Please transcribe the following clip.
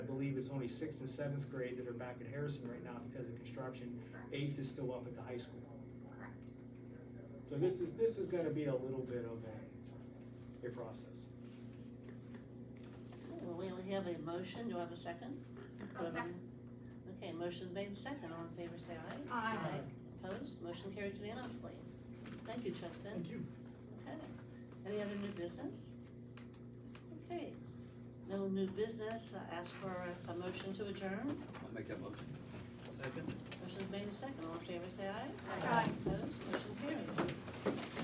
there's only sixth and seventh grade that are back at Harrison right now because of construction. Eighth is still up at the high school. Correct. So this is, this is gonna be a little bit of a, a process. Well, we only have a motion, do I have a second? Oh, second. Okay, motion's made second, all in favor say aye. Aye. Opposed, motion carried unanimously. Thank you, Justin. you. Okay, any other new business? Okay, no new business, I ask for a- a motion to adjourn. I'll make that motion. Motion's made second, all in favor say aye. Aye. Opposed, motion carries.